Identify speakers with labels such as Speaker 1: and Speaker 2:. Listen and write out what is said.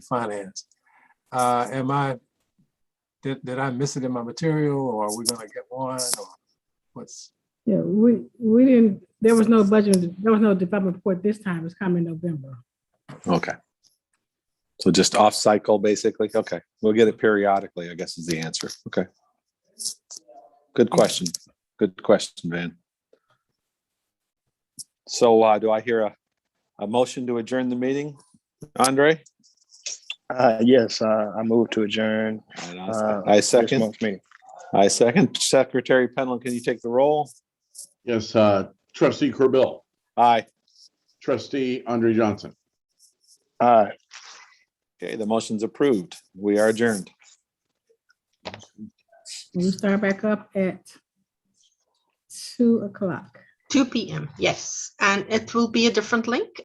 Speaker 1: finance. Uh, am I, did, did I miss it in my material or are we gonna get one or what's?
Speaker 2: Yeah, we, we didn't, there was no budget, there was no development report this time, it's coming November.
Speaker 3: Okay. So just off cycle, basically. Okay. We'll get it periodically, I guess is the answer. Okay. Good question. Good question, Van. So uh, do I hear a, a motion to adjourn the meeting? Andre?
Speaker 4: Uh, yes, uh, I move to adjourn. uh,
Speaker 3: I
Speaker 4: this
Speaker 3: second,
Speaker 4: month's meeting.
Speaker 3: I second. Secretary Penland, can you take the roll?
Speaker 5: Yes, uh, trustee Corbill,
Speaker 3: Aye.
Speaker 5: trustee Andre Johnson,
Speaker 4: All right.
Speaker 3: Okay, the motion's approved. We are adjourned.
Speaker 2: We start back up at two o'clock.
Speaker 6: Two PM, yes. And it will be a different link